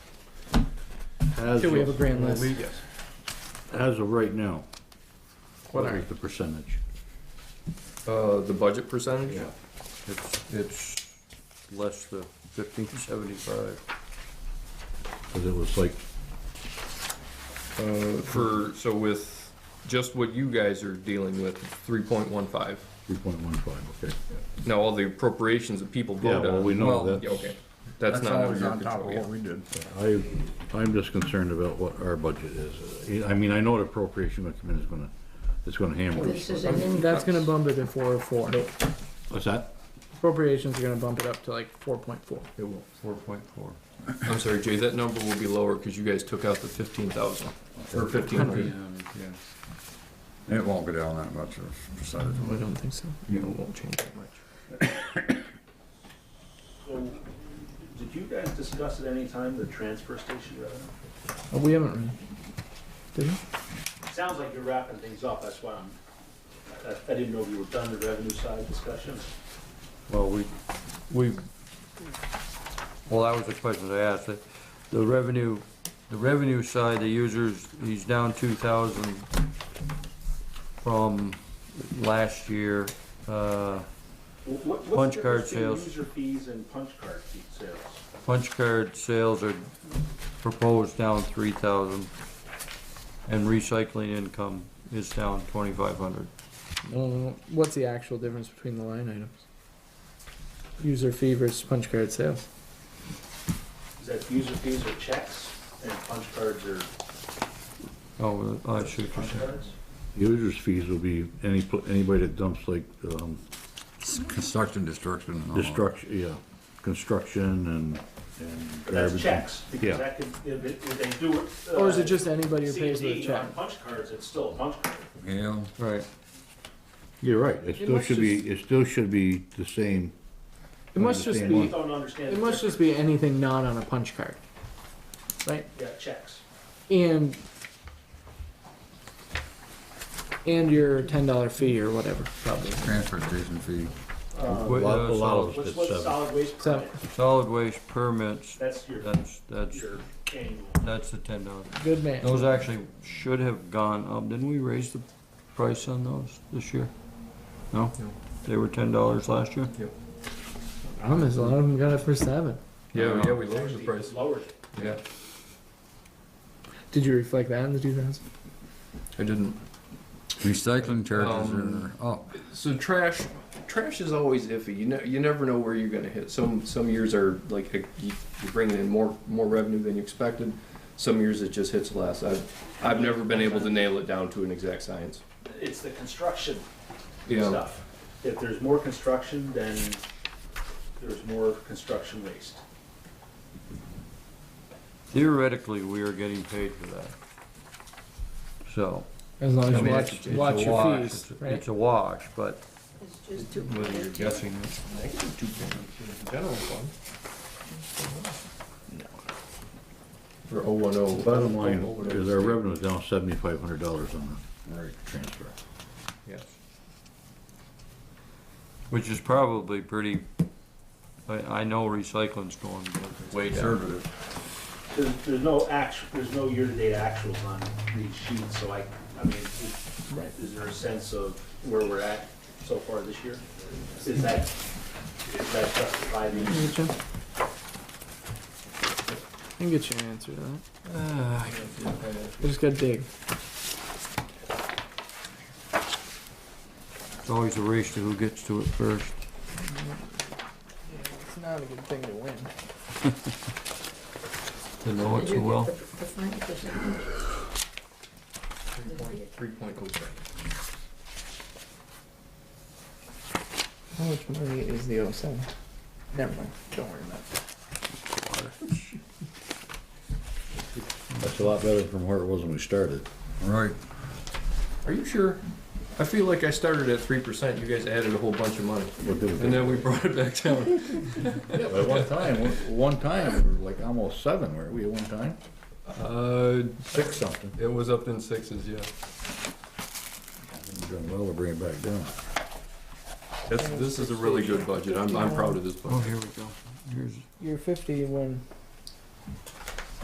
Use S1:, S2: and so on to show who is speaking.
S1: As
S2: Till we have a
S1: of,
S2: grand list.
S3: Yes.
S1: as of right now,
S3: What
S1: what
S3: are,
S1: is the percentage?
S3: uh, the budget percentage?
S1: It's, it's less than fifteen seventy-five. Cause it was like,
S3: Uh, for, so with just what you guys are dealing with, three point one five.
S1: three point one five, okay.
S3: Now, all the appropriations that people
S1: Yeah,
S3: vote on.
S1: well, we know
S3: well,
S1: that's-
S3: yeah, Okay, that's not under
S4: always
S3: your
S4: on top of
S3: control, yeah.
S4: what we did.
S1: I, I'm just concerned about what our budget is. I mean, I know the appropriation gonna come in is gonna, it's gonna hammer
S5: This
S1: us.
S5: is an in,
S2: That's gonna bump it to four oh four.
S1: What's that?
S2: Appropriations are gonna bump it up to like four point four.
S1: It will. Four point four.
S3: I'm sorry, Jay, that number will be lower because you guys took out the fifteen thousand, or fifteen hundred.
S4: It won't go down that much of a percentage.
S2: I don't think so.
S3: You know, it won't change that much.
S6: So, did you guys discuss at any time the transfer station revenue?
S2: Oh, we haven't really. Did we?
S6: Sounds like you're wrapping things up, that's why I'm, I, I didn't know if you were done the revenue side discussion.
S7: Well, we, we, well, that was the question I asked. The- The revenue, the revenue side, the users, he's down two thousand from last year. Uh,
S6: Wh- what- what's the
S7: Punch
S6: difference
S7: card
S6: between
S7: sales.
S6: User fees and punch card fee sales.
S7: punch card sales are proposed down three thousand. And recycling income is down twenty-five hundred.
S2: No, no, no. What's the actual difference between the line items? User fee versus punch card sales.
S6: Is that user fees are checks and punch cards are
S7: Oh, I should.
S6: punch cards?
S1: Users fees will be any, pl- anybody that dumps like, um,
S4: Construction, destruction, and all
S1: Uh-huh.
S4: that.
S1: destruction, yeah, construction and, and
S6: But that's
S1: garbage.
S6: checks,
S1: Yeah.
S6: because that could, if, it- if they do it. uh,
S2: Or is it just anybody who pays with a
S6: CD
S2: check?
S6: on punch cards, it's still a punch card.
S4: Yeah,
S7: Right.
S1: You're right, it still
S2: must
S1: should be, it still should be the same.
S2: It must just
S6: People
S2: be,
S1: Understand.
S6: don't understand.
S2: it
S6: the
S2: must just be anything not on a punch card. Right?
S6: difference. Yeah, checks.
S2: And and your ten dollar fee or whatever, probably.
S4: transfer station fee.
S1: A lot, a lot of us
S6: What's,
S1: did
S6: what's
S1: seven.
S6: solid waste
S2: So-
S6: permit?
S7: Solid waste permits,
S6: That's your,
S7: that's, that's,
S6: your annual.
S7: that's the ten dollars.
S2: Good man.
S7: Those actually should have gone up. Didn't we raise the price on those this year? No?
S3: No.
S7: They were ten dollars last year?
S2: Promise, a lot of them got it for seven.
S3: Yeah, yeah, we lowered the
S6: Actually,
S3: price,
S6: Lowered it.
S3: yeah.
S2: Did you reflect that in the two thousand?
S3: I didn't.
S4: Recycling charges
S3: Um,
S4: are up.
S3: So trash, trash is always iffy. You know, you never know where you're gonna hit. Some some years are like you- you're bringing in more more revenue than you expected. Some years it just hits less. I've I've never been able to nail it down to an exact science.
S6: It's the construction
S3: Yeah,
S6: stuff. If there's more construction, then there's more construction waste.
S7: Theoretically, we are getting paid for that. So.
S2: As long
S7: I
S2: as you
S7: mean,
S2: watch,
S7: it's- it's
S2: watch
S7: a
S2: your
S7: wash.
S2: fees,
S7: It's a-
S2: right?
S7: It's a wash, but
S5: it's just too
S3: whether you're
S5: competitive.
S3: guessing it's negative two point general fund. For oh one oh.
S1: Bottom line is our revenue is down seventy-five hundred dollars on the transfer.
S3: Yes.
S7: Which is probably pretty, I, I know recycling's going way down.
S4: Conservative.
S6: There's, there's no actual, there's no year-to-date actuals on these sheets, so I, I mean, is is there a sense of where we're at so far this year? Is that, is that
S2: I
S6: justified?
S2: can get you- I can get you an answer to that.
S7: Ah,
S2: I just gotta dig.
S7: It's always a race to who gets to it first.
S2: It's not a good thing to win.
S7: To know
S5: Did
S7: it so
S5: you get
S7: well.
S5: the- the fine percentage?
S3: Three point three point oh seven.
S2: How much money is the 07? Never mind. Don't worry about it.
S1: That's a lot better from where it was when we started.
S4: Right.
S3: Are you sure? I feel like I started at three percent. You guys added a whole bunch of money,
S1: We'll do
S3: and
S1: it.
S3: then we brought it back down.
S1: Yeah, but one time, one time, we were like almost seven, weren't we, at one time?
S3: Uh,
S1: Six something.
S3: it was up in sixes, yeah.
S1: Done well to bring it back down.
S3: That's, this is a really good budget. I'm, I'm proud of this
S7: Oh,
S3: budget.
S7: here we go. Here's,
S2: You're 50 when